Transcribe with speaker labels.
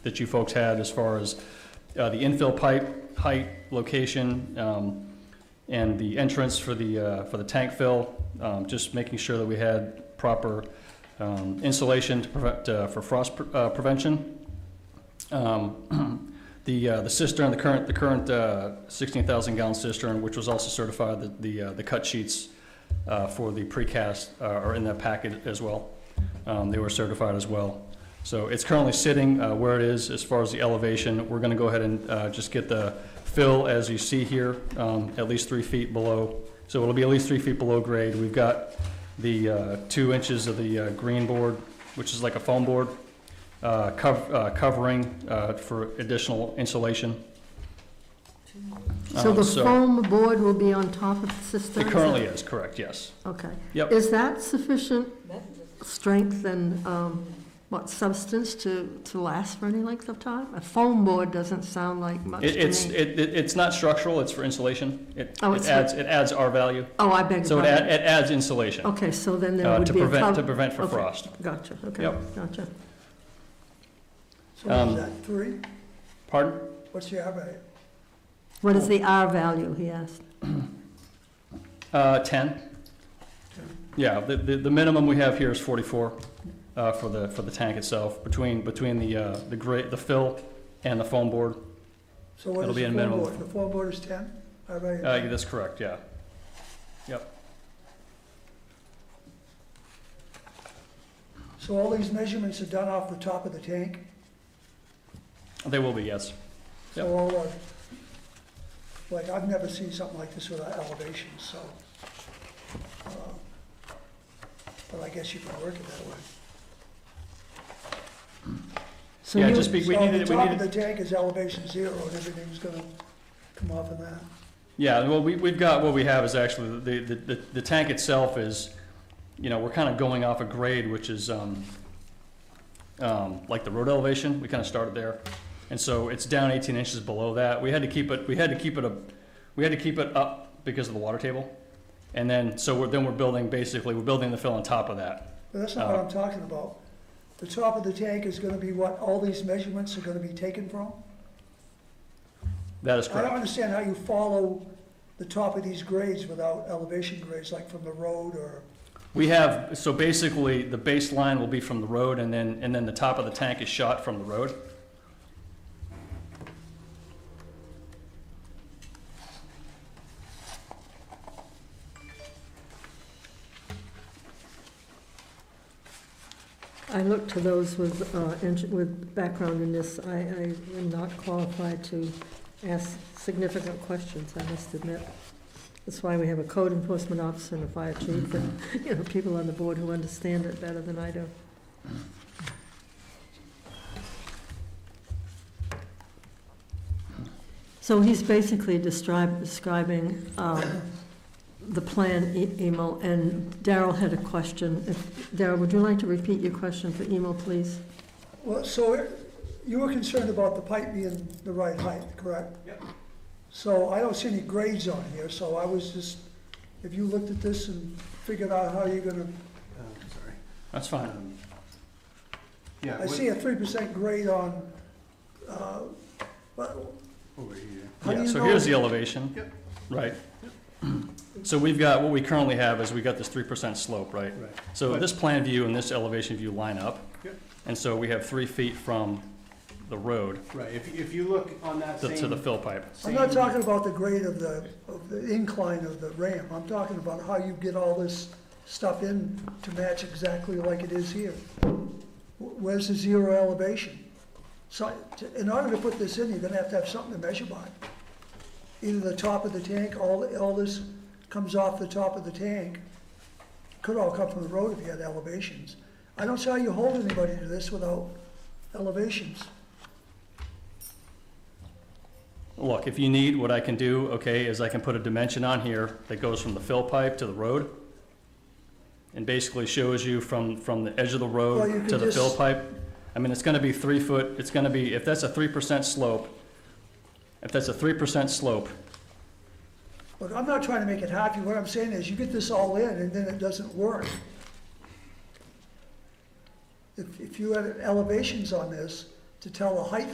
Speaker 1: that you folks had as far as uh, the infill pipe, height, location, um, and the entrance for the, uh, for the tank fill, um, just making sure that we had proper um, insulation to prevent, uh, for frost pre- uh, prevention. Um, The, uh, the cistern, the current, the current uh, 16,000 gallon cistern, which was also certified, the- the, uh, the cut sheets uh, for the precast uh, are in that packet as well. Um, They were certified as well. So it's currently sitting uh, where it is as far as the elevation. We're going to go ahead and uh, just get the fill, as you see here, um, at least three feet below. So it'll be at least three feet below grade. We've got the uh, two inches of the uh, green board, which is like a foam board, uh, cov- uh, covering uh, for additional insulation.
Speaker 2: So
Speaker 1: Um,
Speaker 2: the foam board will be on top of the cistern?
Speaker 1: It
Speaker 2: is
Speaker 1: currently
Speaker 2: that-
Speaker 1: is, correct, yes.
Speaker 2: Okay.
Speaker 1: Yep.
Speaker 2: Is that sufficient strength and, um, what, substance to, to last for any length of time? A foam board doesn't sound like much
Speaker 1: It-
Speaker 2: to
Speaker 1: It's,
Speaker 2: me.
Speaker 1: it- it- it's not structural, it's for insulation. It
Speaker 2: Oh, it's
Speaker 1: it
Speaker 2: for-
Speaker 1: adds, it adds R value,
Speaker 2: Oh, I beg
Speaker 1: so
Speaker 2: your
Speaker 1: it add-
Speaker 2: pardon.
Speaker 1: it adds insulation
Speaker 2: Okay, so then there
Speaker 1: uh,
Speaker 2: would
Speaker 1: to
Speaker 2: be a
Speaker 1: prevent, to
Speaker 2: cover-
Speaker 1: prevent for
Speaker 2: okay.
Speaker 1: frost.
Speaker 2: Gotcha, okay,
Speaker 1: Yep.
Speaker 2: gotcha.
Speaker 3: So what
Speaker 1: Um,
Speaker 3: is that, three?
Speaker 1: Pardon?
Speaker 3: What's the other?
Speaker 2: What is the R value, he asked?
Speaker 1: Uh, 10. Yeah, the, the the minimum we have here is 44 uh, for the, for the tank itself, between, between the, uh, the gra the fill and the foam board.
Speaker 3: So what
Speaker 1: It'll
Speaker 3: is
Speaker 1: be
Speaker 3: the
Speaker 1: in
Speaker 3: four
Speaker 1: minimum.
Speaker 3: board? The four board is ten? I read it.
Speaker 1: Uh, yeah, That's correct, yeah.
Speaker 3: So all these measurements are done off the top of the tank?
Speaker 1: They will be, yes. Yep.
Speaker 3: So all, uh, like, I've never seen something like this without elevation, so. uh, But I guess you can work it that way.
Speaker 2: So
Speaker 1: Yeah,
Speaker 2: you-
Speaker 1: just be, we needed, we
Speaker 3: So the top of
Speaker 1: needed,
Speaker 3: the tank is elevation zero, and everything's gonna come off of that.
Speaker 1: yeah, well, we, we've got, what we have is actually, the, the, the- the tank itself is, you know, we're kind of going off a grade, which is, um, um, like the road elevation, we kind of started there. And so it's down 18 inches below that. We had to keep it, we had to keep it, a, we had to keep it up because of the water table. And then, so we're, then we're building, basically, we're building the fill on top of that.
Speaker 3: But that's not what
Speaker 1: Uh,
Speaker 3: I'm talking about. The top of the tank is gonna be what all these measurements are gonna be taken from?
Speaker 1: That is
Speaker 3: I don't
Speaker 1: correct.
Speaker 3: understand how you follow the top of these grades without elevation grades, like from the road or,
Speaker 1: We have, so basically, the baseline will be from the road and then, and then the top of the tank is shot from the road.
Speaker 2: I look to those with, uh, eng- with background in this, I, I am not qualified to ask significant questions, I must admit. That's why we have a code enforcement officer and a fire chief, and, you know, people on the board who understand it better than I do. So he's basically describe, describing, um, the plan, E- Emil, and Daryl had a question, if Darrell, would you like to repeat your question for Emo, please?
Speaker 3: well, so you were concerned about the pipe being the right height, correct?
Speaker 1: Yep.
Speaker 3: So I don't see any grades on here, so I was just, if you looked at this and figured out how you're gonna,
Speaker 4: Oh, sorry.
Speaker 1: That's fine.
Speaker 4: Um, Yeah,
Speaker 3: I
Speaker 4: what-
Speaker 3: see a three percent grade on, uh, but
Speaker 4: over here.
Speaker 3: how do
Speaker 1: Yeah,
Speaker 3: you
Speaker 1: so
Speaker 3: know?
Speaker 1: here's the elevation.
Speaker 4: Yep.
Speaker 1: Right. So we've got, what we currently have is we got this three percent slope, right?
Speaker 4: Right.
Speaker 1: So
Speaker 4: But-
Speaker 1: this plan view and this elevation view line up.
Speaker 4: Yep.
Speaker 1: And so we have three feet from the road
Speaker 4: Right, if, if you look on that
Speaker 1: to,
Speaker 4: same.
Speaker 1: to the fill pipe.
Speaker 3: I'm not
Speaker 4: same-
Speaker 3: talking about the grade of the, of the incline of the ramp, I'm talking about how you get all this stuff in to match exactly like it is here. Wh- Where's the zero elevation? So, to- in order to put this in, you're gonna have to have something to measure by. Either the top of the tank, all, all this comes off the top of the tank, could all come from the road if you had elevations. I don't see how you hold anybody to this without elevations.
Speaker 1: Look, if you need, what I can do, okay, is I can put a dimension on here that goes from the fill pipe to the road. And basically shows you from, from the edge of the
Speaker 3: Well, you
Speaker 1: road to
Speaker 3: could
Speaker 1: the fill
Speaker 3: just-
Speaker 1: pipe. I mean, it's gonna be three foot, it's gonna be, if that's a three percent slope, if that's a three percent slope,
Speaker 3: Look, I'm not trying to make it happy, what I'm saying is, you get this all in, and then it doesn't work. If, if you had elevations on this, to tell the height